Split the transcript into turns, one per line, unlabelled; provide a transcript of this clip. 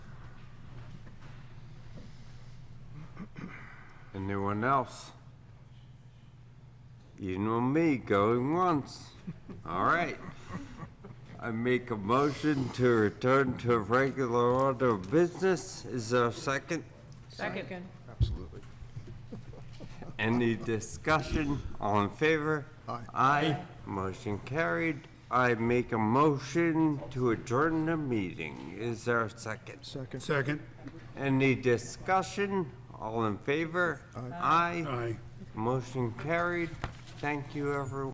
Anyone else? You know me, going once. All right. I make a motion to return to regular order of business. Is there a second?
Second.
Absolutely.
Any discussion? All in favor?
Aye.
Aye. Motion carried. I make a motion to adjourn the meeting. Is there a second?
Second.
Second.
Any discussion? All in favor? Aye.
Aye.
Motion carried. Thank you, everyone.